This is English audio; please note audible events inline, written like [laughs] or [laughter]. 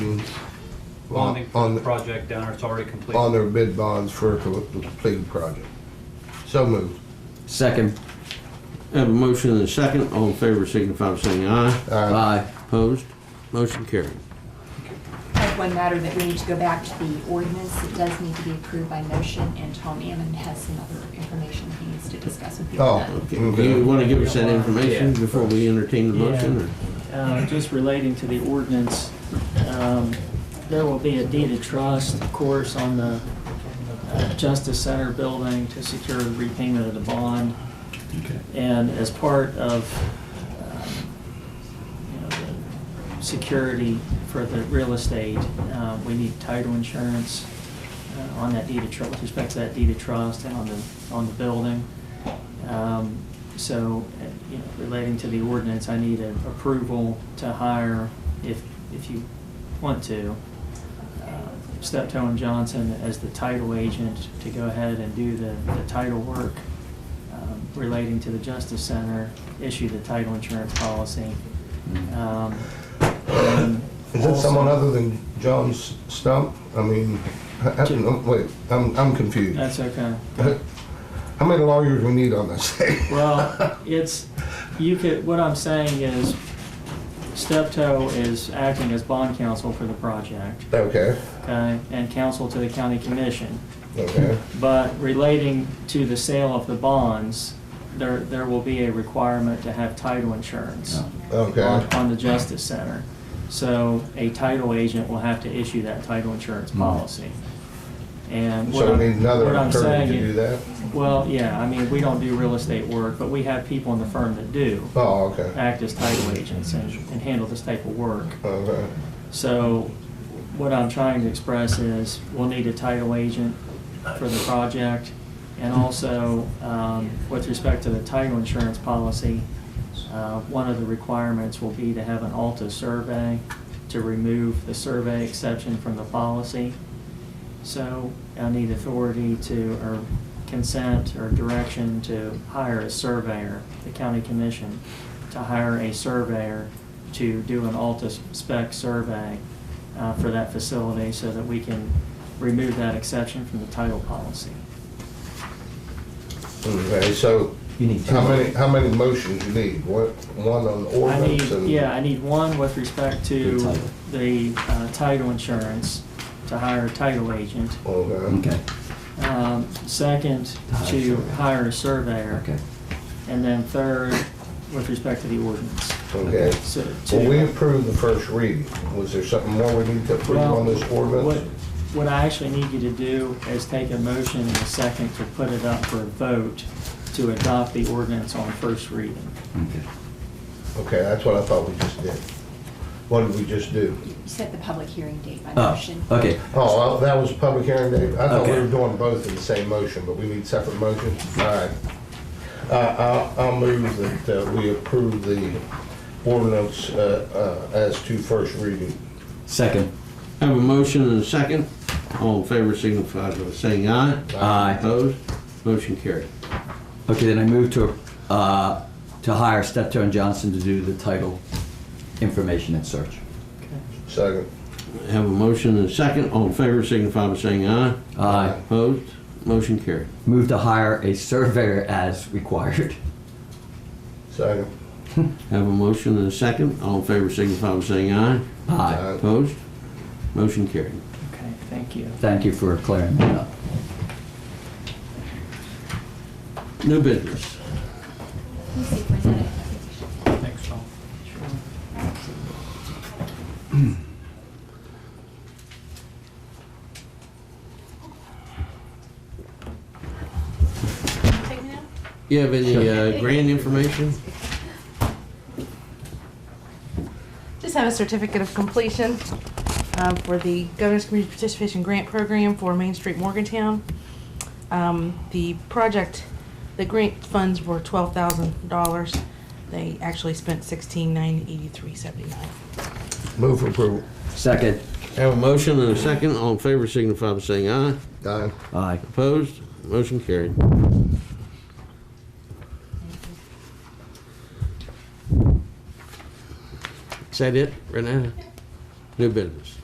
bonding for on the the- project down there, it's already on completed. their bid bonds for a co- completed project. So moved. Second. Have a motion and a second. All in favor signify by saying aye. Aye. Opposed? Motion carried. I have one matter that we need to go back to the ordinance. It does need to be approved by motion, and Tom Ammon has some other information he needs to discuss with you. Uh, on Oh. that. Okay. Do Okay. you want to give us that information Yeah. before we entertain the Yeah. motion? or- Uh, Just relating to the ordinance, um, there will be a deed of trust, of course, on the uh, Justice Center building to secure repayment of the bond. And as part of, um, you know, the security for the real estate, uh, we need title insurance uh, on that deed of trust, with respect to that deed of trust and on the, on the building. Um, So, uh, you know, relating to the ordinance, I need an approval to hire, if, if you want to, uh, Steptoe and Johnson as the title agent to go ahead and do the, the title work um, relating to the Justice Center, issue the title insurance policy. Um, and Is that someone also- other than John S- Stump? I mean, I- I don't know. wait, I'm, I'm confused. That's okay. How many lawyers we need on this thing? [laughs] Well, it's, you could, what I'm saying is Steptoe is acting as bond counsel for the project, Okay, okay? And counsel to the county commission. okay, But relating to the sale of the bonds, there, there will be a requirement to have title insurance on, okay. on the Justice Center. So a title agent will have to issue that title insurance policy. And what Hmm. So we I'm, need another what I'm attorney to saying do is, that? well, yeah, I mean, we don't do real estate work, but we have people in the firm that do Oh, okay, act as title agents and, and handle this type of work. okay, So what I'm trying to express is we'll need a title agent for the project. And also, um, with respect to the title insurance policy, uh, one of the requirements will be to have an Alta survey to remove the survey exception from the policy. So I need authority to, or consent or direction to hire a surveyor, the county commission, to hire a surveyor to do an Alta spec survey uh, for that facility so that we can remove that exception from the title policy. okay, so You need two. how many, how many motions you need? What, one on the I need, ordinance and? yeah, I need one with respect The to title. the uh, title insurance, to hire a title agent. Okay, Okay, Um, Second, hire a to surveyor. hire a surveyor. okay. And then third, with respect to the ordinance. okay. So Well, we to- approved the first reading. Was there something more we need to approve on this What ordinance? what I actually need you to do is take a motion and a second to put it up for a vote to adopt the ordinance on first reading. Okay. Okay, that's what I thought we just did. What did we just do? You set the public hearing date by Oh, motion. okay. Oh, well, that was public hearing day. I thought we Okay. were doing both in the same motion, but we need separate motions? All right. Uh, I'll, I'll move that uh, we approve the ordinance uh, uh, as to first reading. Second. Have a motion and a second. All in favor signify by saying aye. Aye. Opposed? Motion carried. Okay, then I move to, uh, to hire Steptoe and Johnson to do the title information and search. Second. Have a motion and a second. All in favor signify by saying aye. Aye. Opposed? Motion carried. Move to hire a surveyor as required. Second. Have a motion and a second. All in favor signify by saying aye. Uh, Aye. Opposed? Motion carried. Okay, thank you. Thank you for clearing that up. New business. Let me see if I said it. Thanks, Tom. You have any uh, grant information? Just have a certificate of completion uh, for the Governor's Community Participation Grant Program for Main Street Morgantown. Um, The project, the grant funds were twelve thousand dollars. They actually spent sixteen nine eighty-three seventy-nine. Move for approval. Second. Have a motion and a second. All in favor signify by saying aye. Aye. Aye. Opposed? Motion carried. Is that it, Renata? New business.